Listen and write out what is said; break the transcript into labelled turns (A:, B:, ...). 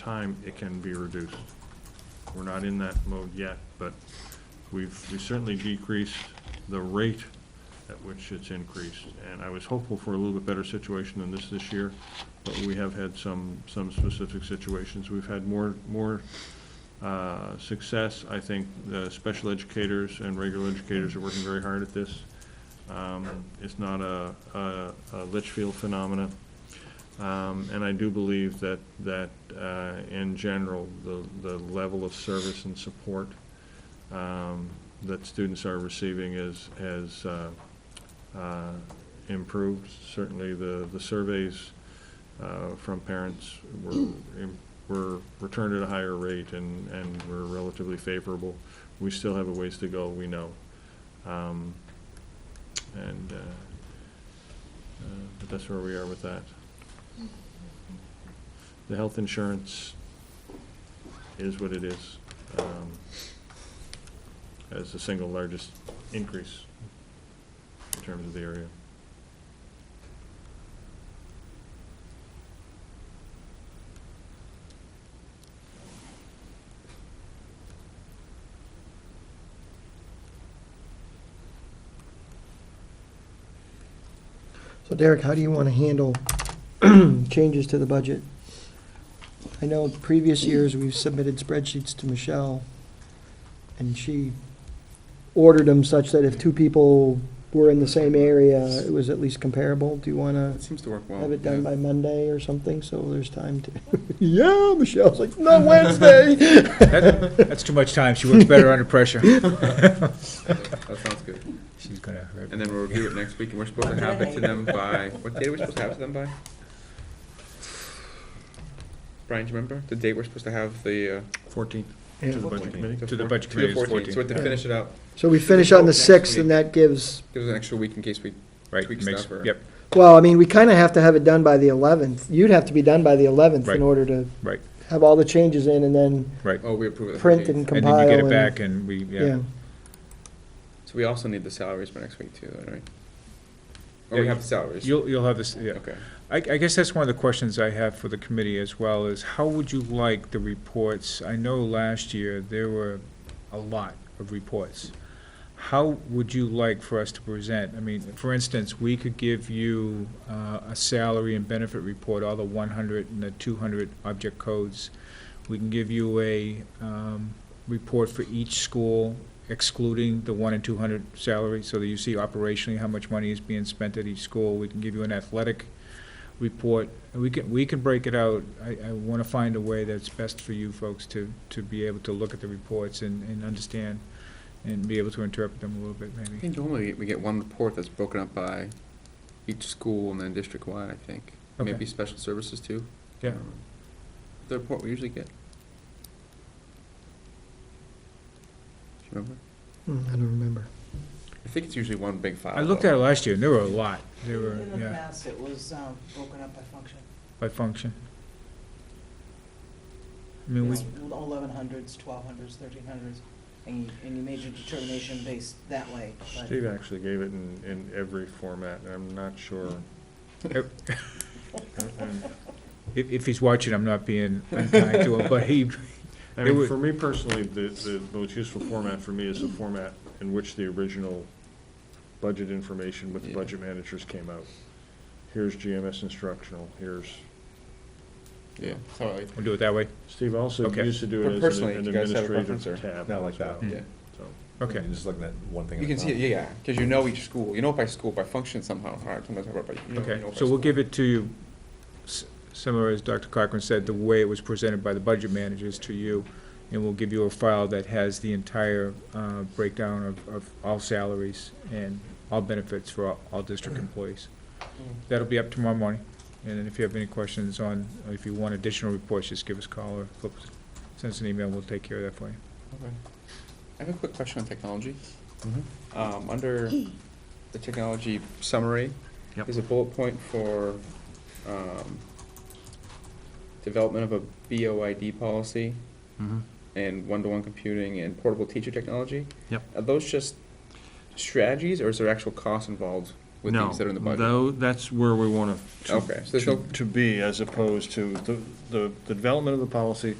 A: time, it can be reduced. We're not in that mode yet, but we've, we certainly decreased the rate at which it's increased. And I was hopeful for a little bit better situation than this this year, but we have had some, some specific situations. We've had more, more uh, success. I think the special educators and regular educators are working very hard at this. Um, It's not a- a a Litchfield phenomena. Um, And I do believe that, that uh, in general, the, the level of service and support um, that students are receiving is, has uh, uh, improved. Certainly, the, the surveys uh, from parents were, im- were returned at a higher rate and, and were relatively favorable. We still have a ways to go, we know. Um, And, uh, uh, but that's where we are with that. The health insurance is what it is, um, as the single largest increase in terms of the area.
B: So Derek, how do you want to handle changes to the budget? I know previous years, we've submitted spreadsheets to Michelle, and she ordered them such that if two people were in the same area, it was at least comparable. Do you want
C: It
B: to
C: seems to work well.
B: have it done
C: Oh, yeah.
B: by Monday or something, so there's time to, yeah, Michelle's like, no, Wednesday.
D: That- That's too much time. She works better under pressure.
C: That sounds good.
D: She's gonna hurt.
C: And then we'll review it next week, and we're supposed to have it to them by, what date are we supposed to have it to them by? Brian, do you remember? The date we're supposed to have the, uh?
A: Fourteenth.
B: Yeah.
A: To the budget committee?
D: To the
C: four-
D: budget
C: to
D: committee is
C: 14th, So we have to
B: 14th.
C: finish it up.
B: So we finish on the
C: Next
B: 6th, and
C: week.
B: that gives,
C: Give us an extra week in case we,
D: Right,
C: Tweak
D: makes,
C: stuff or-
D: yep,
B: well, I mean, we kind of have to have it done by the 11th. You'd have to be done by the 11th
D: Right.
B: in order to
D: right.
B: have all the changes in and then
D: Right.
C: oh, we approve it. the
B: print and
C: 14th.
D: And then you
B: compile
D: get it
B: and,
D: back and we,
B: yeah.
D: yeah.
C: So we also need the salaries for next week too, then, right? Or
D: Yeah,
C: we have
D: you-
C: the salaries?
D: You'll, you'll have this, yeah.
C: Okay.
D: I, I guess that's one of the questions I have for the committee as well, is how would you like the reports? I know last year there were a lot of reports. How would you like for us to present? I mean, for instance, we could give you uh, a salary and benefit report, all the 100 and the 200 object codes. We can give you a um, report for each school excluding the 1 and 200 salary, so that you see operationally how much money is being spent at each school. We can give you an athletic report, and we can, we can break it out. I, I want to find a way that's best for you folks to, to be able to look at the reports and, and understand and be able to interpret them a little bit,
C: I
D: maybe.
C: think normally we get one report that's broken up by each school and then district-wide, I think.
D: Okay.
C: Maybe special services too.
D: Yeah.
C: Um, The report we usually get. Do you remember?
B: Hmm, I don't remember.
C: I think it's usually one big file.
D: I looked
C: though.
D: at it last year, and there were a lot. There were,
E: In the
D: yeah,
E: past, it was um, broken up by function.
D: by function. I mean, we,
E: Eleven hundreds, twelve hundreds, thirteen hundreds, and you, and you made your determination based that way. but-
A: Steve actually gave it in, in every format, and I'm not sure.
D: Yep.
A: And-
D: if, if he's watching, I'm not being unkind to him, but he,
A: I
D: It
A: mean,
D: would-
A: for me personally, the, the most useful format for me is the format in which the original budget information with the
C: Yeah.
A: budget managers came out. Here's GMS instructional, here's,
C: Yeah, sorry.
D: we'll do it that way.
A: Steve also
D: Okay.
A: used to do
C: But
A: it as an-
C: personally,
A: an
C: do you guys have a
A: administrative
C: preference or-
A: tab.
F: Not like
A: as well,
C: Hmm.
D: that. Mm.
A: so.
D: Okay.
F: You're just looking at one thing at
C: You
F: a
D: uh,
C: can see, it,
F: time.
C: yeah, yeah, because you know each school, you know it by school, by function somehow, or sometimes by, you know- you
D: Okay,
C: know by
D: so we'll
C: school.
D: give it to you, s- similar as Dr. Cochran said, the way it was presented by the budget managers to you, and we'll give you a file that has the entire uh, breakdown of, of all salaries and all benefits for all, all district employees. That'll be up tomorrow morning, and then if you have any questions on, or if you want additional reports, just give us a call or flip, us- send us an email, we'll take care of that for you.
C: Okay. I have a quick question on technology.
A: Mm-hmm.
C: Um, under the technology summary,
A: Yep.
C: there's a bullet point for, um, development of a BOID policy
A: Mm-hmm.
C: and one-to-one computing and portable teacher technology.
A: Yep.
C: Are those just strategies, or is there actual cost involved with
A: No,
C: things that are in the budget?
A: tho- that's where we want to,
C: Okay, so there's no
A: to be, as opposed to the, the the development of the policy